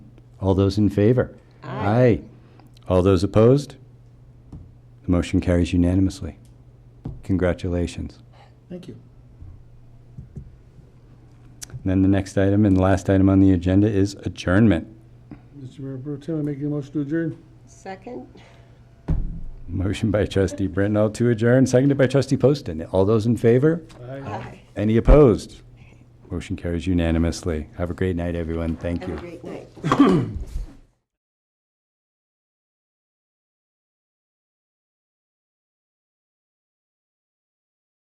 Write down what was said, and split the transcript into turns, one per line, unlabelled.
All those in favor? Aye. All those opposed? The motion carries unanimously. Congratulations.
Thank you.
And Then the next item and the last item on the agenda is adjournment.
Mr. Mayor Pro Tem, I make a motion to adjourn.
Second?
Motion by trustee Brittenall to adjourn, seconded by trustee Poston. All those in favor?
Aye.
Any opposed? Motion carries unanimously. Have a great night, everyone. Thank
Have
you.
a great night.